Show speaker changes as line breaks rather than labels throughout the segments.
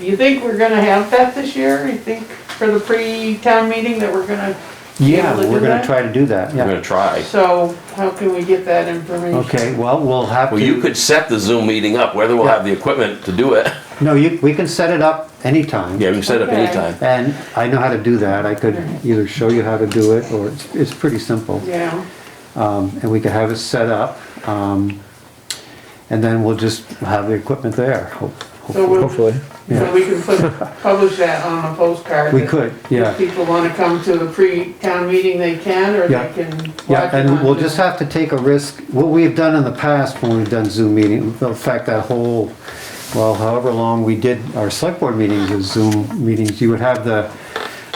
You think we're gonna have that this year? You think for the pre-town meeting that we're gonna,
Yeah,
Able to
we're
do
gonna
that?
try to do that,
We're
yeah.
gonna try.
so how can we get that information?
Okay, well, we'll have to.
Well, you could set the Zoom meeting up, whether we'll have the equipment to do it.
No, you, we can set it up anytime.
Yeah, we can set it up
Okay.
anytime.
And I know how to do that. I could either show you how to do it, or it's, it's pretty simple.
Yeah,
Um, and we could have it set up, um, and then we'll just have the equipment there, ho-
so
hopefully.
we'll,
hopefully.
so we can put, publish that on a postcard.
We
that
could, yeah.
If people wanna come to the pre-town meeting, they can, or
Yeah.
they can
Yeah,
watch it
and
on
we'll
the-
just have to take a risk, what we've done in the past when we've done Zoom meeting, in fact, that whole, well, however long we did our select board meetings as Zoom meetings, you would have the,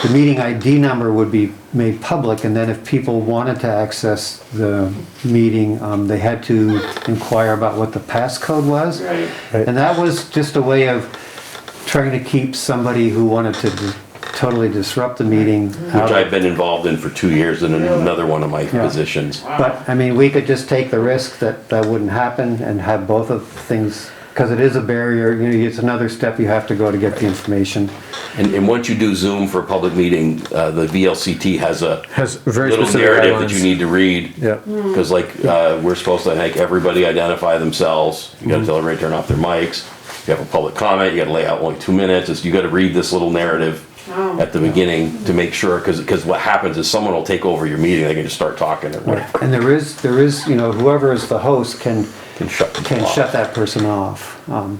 the meeting ID number would be made public, and then if people wanted to access the meeting, um, they had to inquire about what the passcode was.
Right.
Right.
And that was just a way of trying to keep somebody who wanted to d- totally disrupt the meeting out
Which
of
I've been involved in for two years in another one of my
Yeah.
positions.
But, I mean, we could just take the risk that that wouldn't happen and have both of things, because it is a barrier, you know, it's another step you have to go to get the information.
And, and once you do Zoom for a public meeting, uh, the VLCT has a
Has very
little
specific
narrative that you
guidelines.
need to read.
Yeah.
Because like, uh, we're supposed to make everybody identify themselves. You
Mm-hmm.
gotta tell everybody to turn off their mics. You have a public comment, you gotta lay out only two minutes. It's- You gotta read this little narrative
Oh.
at the beginning to make sure, because, because what happens is someone will take over your meeting, they can just start talking or whatever.
And there is, there is, you know, whoever is the host can,
Can shut them
can
off.
shut that person off. Um,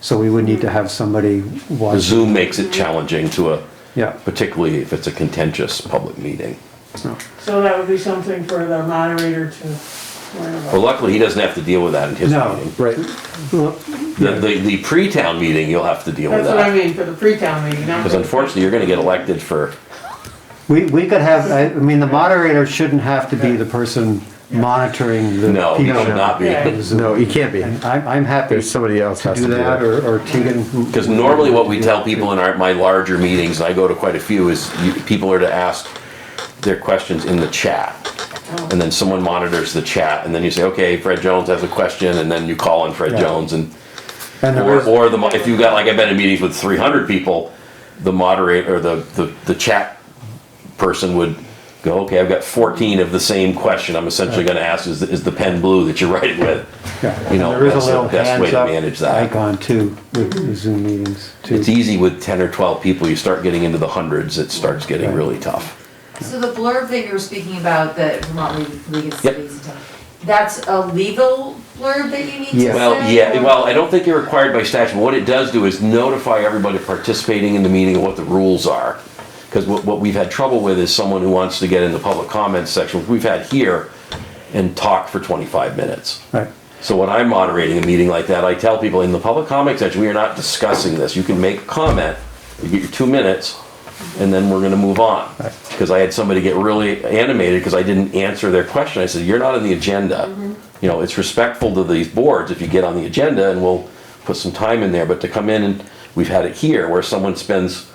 So we would need to have somebody watch.
Zoom makes
Mm-hmm.
it challenging to a,
Yeah,
particularly if it's a contentious public meeting.
So that would be something for the moderator to learn about.
But luckily, he doesn't have to deal with that in his
No.
meeting.
Right.
The, the, the pre-town meeting, you'll have to deal with
That's what I
that.
mean, for the pre-town meeting, not
Because
for the-
unfortunately, you're gonna get elected for,
we, we could have, I I mean, the moderator shouldn't have to be the person monitoring the.
no, he
people.
should not be.
Yeah.
No, you can't be.
I'm, I'm happy
There's
to
somebody else has
do
to do
that,
that.
or or Tegan. who-
Because normally what we tell people in our, my larger meetings, and I go to quite a few, is you, people are to ask their questions in the chat. And then someone monitors the chat, and then you say, okay, Fred Jones has a question, and then you call on Fred
Yeah.
Jones, and,
and the
or,
rest-
or the, mo- if you've got, like, I've been in meetings with three hundred people, the moderator, or the, the, the chat person would go, okay, I've got fourteen of the same question, I'm essentially gonna ask, is, the- is the pen blue that you're writing with?
Yeah,
You
and
know,
there is a
that's the
little
best way to
hands-up
manage that.
Icon too, with the Zoom meetings too.
It's e- easy with 10 or 12 people, you start getting into the hundreds, it starts getting really tough.
So the blurb that you were speaking about, that Vermont League- League of
Yep.
Cities, and Towns, that's a legal blurb that you need to say?
Yeah.
Well, yeah,
or-
well, I don't think you're required by statute, what it does do is notify everybody participating in the meeting of what the rules are. Because what, what we've had trouble with is someone who wants to get in the public comments section, which we've had here, and talk for 25 minutes.
Right,
So when I'm moderating a meeting like that, I tell people in the public comment section, we are not discussing this. You can make a comment, you get your two minutes, and then we're gonna move on. Because I had somebody get really animated because I didn't answer their question. I said, you're not on the agenda. You know, it's respectful to these boards if you get on the agenda and we'll put some time in there, but to come in and, we've had it here where someone spends,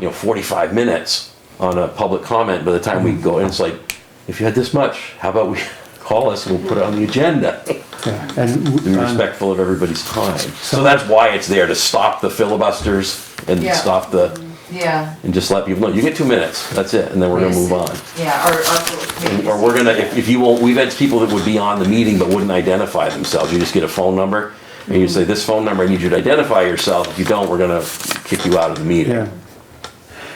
you know, forty-five minutes on a public comment by the time we go, and it's like, if you had this much, how about we call us and we'll put it on the agenda?
yeah, and.
and
w- on-
respectful of everybody's time. So that's why it's there, to stop the filibusters and
Yeah.
stop the,
Yeah,
and just let people know, you get two minutes, that's it, and then we're gonna move on.
yeah, or, or.
And- Or we're gonna, if, if you won't, we've had people that would be on the meeting but wouldn't identify themselves, you just get a phone number, and you say, this phone number, I need you to identify yourself, if you don't, we're gonna kick you out of the meeting.
Yeah.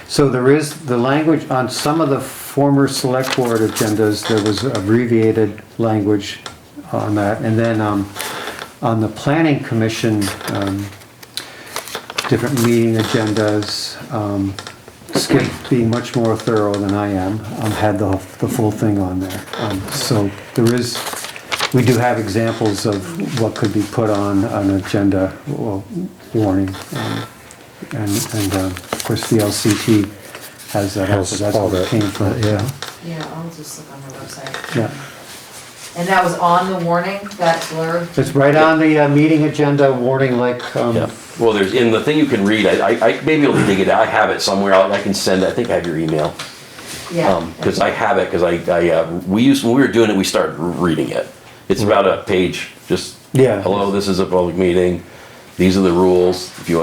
So there is, the language, on some of the former select board agendas, there was abbreviated language on that. And then um, on the planning commission, um, different meeting agendas, um, Skip being much more thorough than I am, um, had the, the full thing on there. Um, So there is, we do have examples of what could be put on an agenda well, warning. um, and, and um, of course, the LCT has that, also.
Has
that's
all
where it
that, uh,
came from.
yeah.
Yeah, I'll just look on their website.
Yeah,
And that was on the warning, that blurb?
it's right on the uh, meeting agenda warning like, um,
Yeah, well, there's, in the thing you can read, I, I, I may be able to dig it out, I have it somewhere, I I can send, it. I think I have your email.
Yeah.
because Um, I have it, because I, I, uh, we used, when we were doing it, we started r- reading it. It's about a page, just.
Yeah.
Hello, this is a public meeting, these are the rules, if you